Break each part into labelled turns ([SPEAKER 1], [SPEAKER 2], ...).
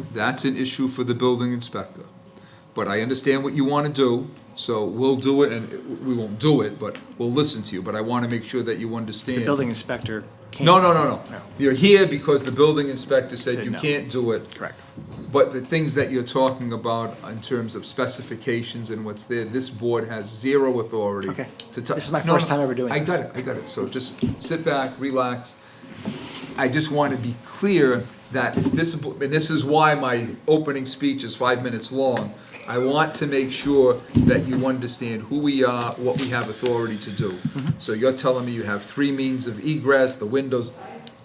[SPEAKER 1] That's an issue for the building inspector. But I understand what you want to do, so we'll do it, and we won't do it, but we'll listen to you. But I want to make sure that you understand.
[SPEAKER 2] The building inspector Oh, can't.
[SPEAKER 1] No, no, no, no. You're here because the building inspector said
[SPEAKER 2] Said
[SPEAKER 1] you
[SPEAKER 2] no.
[SPEAKER 1] can't do it.
[SPEAKER 2] Correct.
[SPEAKER 1] But the things that you're talking about in terms of specifications and what's there, this board has zero authority
[SPEAKER 2] Okay.
[SPEAKER 1] to tou-
[SPEAKER 2] This is my
[SPEAKER 1] No,
[SPEAKER 2] first
[SPEAKER 1] no,
[SPEAKER 2] time ever doing
[SPEAKER 1] I
[SPEAKER 2] this.
[SPEAKER 1] got it, I got it. So just sit back, relax. I just want to be clear that if this, bo- and this is why my opening speech is five minutes long. I want to make sure that you understand who we are, what we have authority to do.
[SPEAKER 2] Mm-hmm.
[SPEAKER 1] So you're telling me you have three means of egress, the windows,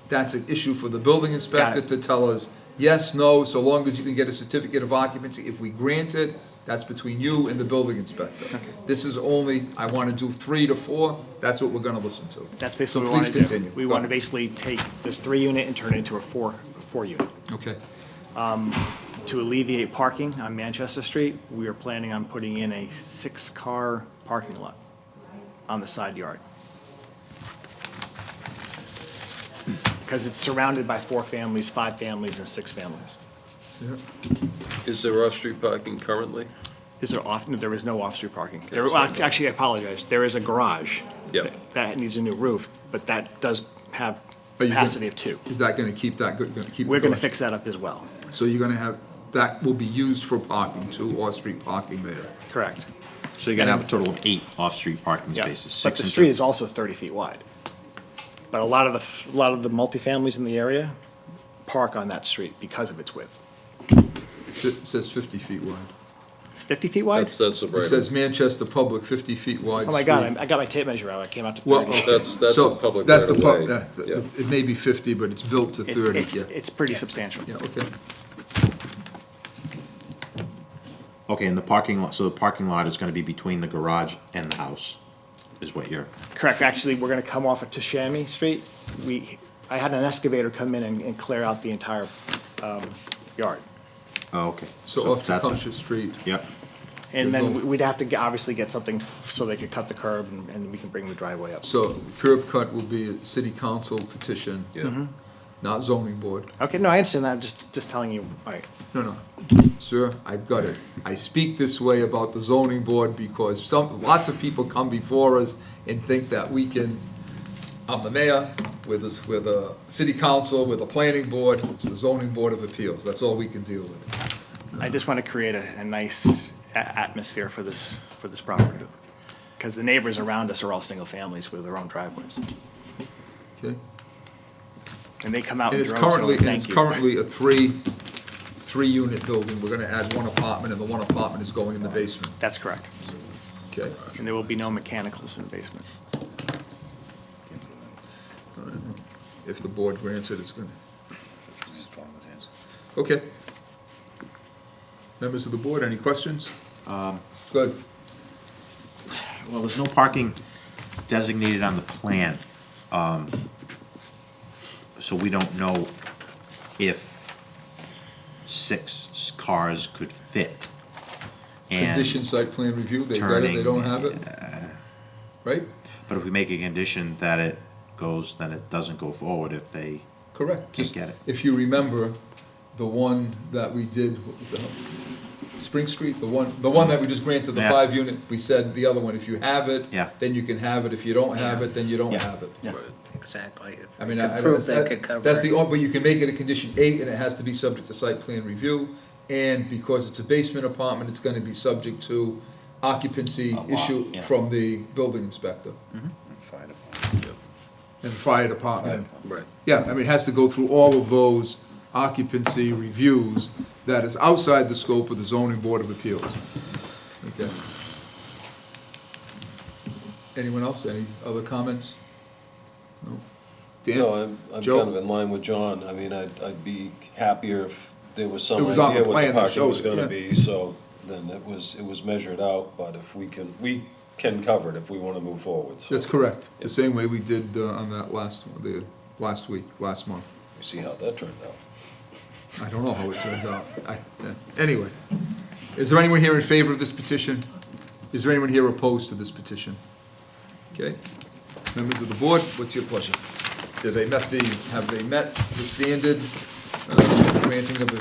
[SPEAKER 1] that's an issue for the building inspector
[SPEAKER 2] it.
[SPEAKER 1] to tell us, yes, no, so long as you can get a certificate of occupancy. If we grant it, that's between you and the building inspector. This is only, I want to do three to four, that's what we're going to listen to.
[SPEAKER 2] That's basically
[SPEAKER 1] So
[SPEAKER 2] what we
[SPEAKER 1] please
[SPEAKER 2] want to do.
[SPEAKER 1] continue.
[SPEAKER 2] We
[SPEAKER 1] Go
[SPEAKER 2] want to
[SPEAKER 1] ahead.
[SPEAKER 2] basically take this three unit and turn it into a four, four unit.
[SPEAKER 1] Okay.
[SPEAKER 2] To alleviate parking on Manchester Street, we are planning on putting in a six-car parking lot on the side yard. Because it's surrounded by four families, five families, and six families.
[SPEAKER 3] Is there off-street parking currently?
[SPEAKER 2] Is there often, there is no off-street parking. There, well, actually, I apologize, there is a garage.
[SPEAKER 3] Yeah.
[SPEAKER 2] that- That needs a new roof, but that does have
[SPEAKER 1] But you can-
[SPEAKER 2] capacity of two.
[SPEAKER 1] Is that going to keep that, good? going to keep? the
[SPEAKER 2] We're gonna
[SPEAKER 1] garage?
[SPEAKER 2] fix that up as well.
[SPEAKER 1] So you're going to have, that will be used for parking too, off-street parking there.
[SPEAKER 2] Correct.
[SPEAKER 4] So you're gonna have a total of eight off-street parking
[SPEAKER 2] Yeah,
[SPEAKER 4] spaces,
[SPEAKER 2] but
[SPEAKER 4] six
[SPEAKER 2] the
[SPEAKER 4] in
[SPEAKER 2] street
[SPEAKER 4] total.
[SPEAKER 2] is also thirty feet wide. But a lot of the, f- a lot of the multifamilies in the area park on that street because of its width.
[SPEAKER 1] It sa- says 50 feet wide.
[SPEAKER 2] It's fifty feet wide?
[SPEAKER 3] That's, uh, that's a
[SPEAKER 1] It
[SPEAKER 3] right.
[SPEAKER 1] says Manchester Public 50 feet wide.
[SPEAKER 2] Oh my God,
[SPEAKER 1] street.
[SPEAKER 2] I'm- I got my tape measure out, I came out to
[SPEAKER 1] Well, uh,
[SPEAKER 2] thirty.
[SPEAKER 1] okay.
[SPEAKER 3] oh, That's- that's
[SPEAKER 1] So
[SPEAKER 3] the public
[SPEAKER 1] that's the
[SPEAKER 3] right-of-way.
[SPEAKER 1] pub- that-
[SPEAKER 3] Yeah.
[SPEAKER 1] that- It may be 50, but it's built to
[SPEAKER 2] It-
[SPEAKER 1] 30,
[SPEAKER 2] It's,
[SPEAKER 1] yeah.
[SPEAKER 2] it's pretty substantial.
[SPEAKER 1] Yeah, okay.
[SPEAKER 4] Okay, and the parking lot, so the parking lot is gonna be between the garage and the house, is what you're,
[SPEAKER 2] Correct, actually, we're gonna come off of Tashami Street. We, I had an excavator come in and, and clear out the entire, um, yard.
[SPEAKER 4] oh, okay.
[SPEAKER 1] So off
[SPEAKER 4] that's it.
[SPEAKER 1] Tecumseh Street.
[SPEAKER 4] Yep,
[SPEAKER 2] And then
[SPEAKER 1] Good.
[SPEAKER 2] we- we'd have to get- obviously get something f- so they could cut the curb and, and we can bring the driveway up.
[SPEAKER 1] So curb cut will be a city council petition,
[SPEAKER 3] Yeah.
[SPEAKER 1] not zoning board.
[SPEAKER 2] Okay, no, I understand that, I'm just, just telling you, all right.
[SPEAKER 1] No, no, sir, I've got it. I speak this way about the zoning board because some, lots of people come before us and think that we can, I'm the mayor, with this, with a city council, with a planning board, it's the zoning board of appeals, that's all we can deal with.
[SPEAKER 2] I just want to create a, a nice a- atmosphere for this, for this property. Because the neighbors around us are all single families with their own driveways.
[SPEAKER 1] Okay?
[SPEAKER 2] And they come out
[SPEAKER 1] And
[SPEAKER 2] with
[SPEAKER 1] it's
[SPEAKER 2] their own,
[SPEAKER 1] currently,
[SPEAKER 2] so
[SPEAKER 1] and it's
[SPEAKER 2] thank you.
[SPEAKER 1] currently a three, three-unit building, we're gonna add one apartment, and the one apartment is going in the basement,
[SPEAKER 2] That's correct.
[SPEAKER 1] okay?
[SPEAKER 2] And there will be no mechanicals in the basement.
[SPEAKER 1] If the board grants it, it's gonna. Okay. Members of the board, any questions?
[SPEAKER 2] Um,
[SPEAKER 1] Good.
[SPEAKER 4] well, there's no parking designated on the plan. um, So we don't know if six s- cars could fit. And-
[SPEAKER 1] Condition site plan review, they got it, they don't
[SPEAKER 4] turning,
[SPEAKER 1] have it?
[SPEAKER 2] uh,
[SPEAKER 1] Right?
[SPEAKER 4] But if we make a condition that it goes, then it doesn't go forward if they,
[SPEAKER 1] Correct.
[SPEAKER 4] Can't
[SPEAKER 1] Just
[SPEAKER 4] get it.
[SPEAKER 1] If you remember, the one that we did, what was the hell? Spring Street, the one, the one that we just granted the
[SPEAKER 4] Yeah.
[SPEAKER 1] five unit, we said the other one, if you have it,
[SPEAKER 4] Yeah.
[SPEAKER 1] then you can have it, if you don't have it, then you don't
[SPEAKER 4] Yeah.
[SPEAKER 1] have it.
[SPEAKER 4] Yeah.
[SPEAKER 5] Exactly. If
[SPEAKER 1] I
[SPEAKER 5] they
[SPEAKER 1] mean,
[SPEAKER 5] could
[SPEAKER 1] I, I,
[SPEAKER 5] prove they could
[SPEAKER 1] that-
[SPEAKER 5] cover
[SPEAKER 1] that's
[SPEAKER 5] it.
[SPEAKER 1] the, on- but you can make it a condition eight, and it has to be subject to site plan review, and because it's a basement apartment, it's gonna be subject to occupancy
[SPEAKER 4] lot,
[SPEAKER 1] issue
[SPEAKER 4] yeah.
[SPEAKER 1] from the building inspector
[SPEAKER 5] Mm-hmm. Fire department.
[SPEAKER 1] and fire department.
[SPEAKER 3] Right.
[SPEAKER 1] Yeah, I mean, it has to go through all of those occupancy reviews that is outside the scope of the zoning board of appeals. Okay. Anyone else, any other comments? No? Dan?
[SPEAKER 3] No, I'm, I'm
[SPEAKER 1] Joe?
[SPEAKER 3] kind of in line with John. I mean, I'd, I'd be happier if there was
[SPEAKER 1] It
[SPEAKER 3] some
[SPEAKER 1] was on the
[SPEAKER 3] idea what
[SPEAKER 1] plan
[SPEAKER 3] the
[SPEAKER 1] that
[SPEAKER 3] parking was
[SPEAKER 1] showed it, yeah.
[SPEAKER 3] gonna be, so then it was, it was measured out, but if we can, we can cover it if we wanna move forward, so.
[SPEAKER 1] That's correct, the same way we did uh, on that last, one, the, last week, last month.
[SPEAKER 3] We see how that turned out.
[SPEAKER 1] I don't know how it turns out. I- yeah. Anyway, is there anyone here in favor of this petition? Is there anyone here opposed to this petition? Okay, members of the board, what's your pleasure? Do they met the, have they met the standard uh, granting of the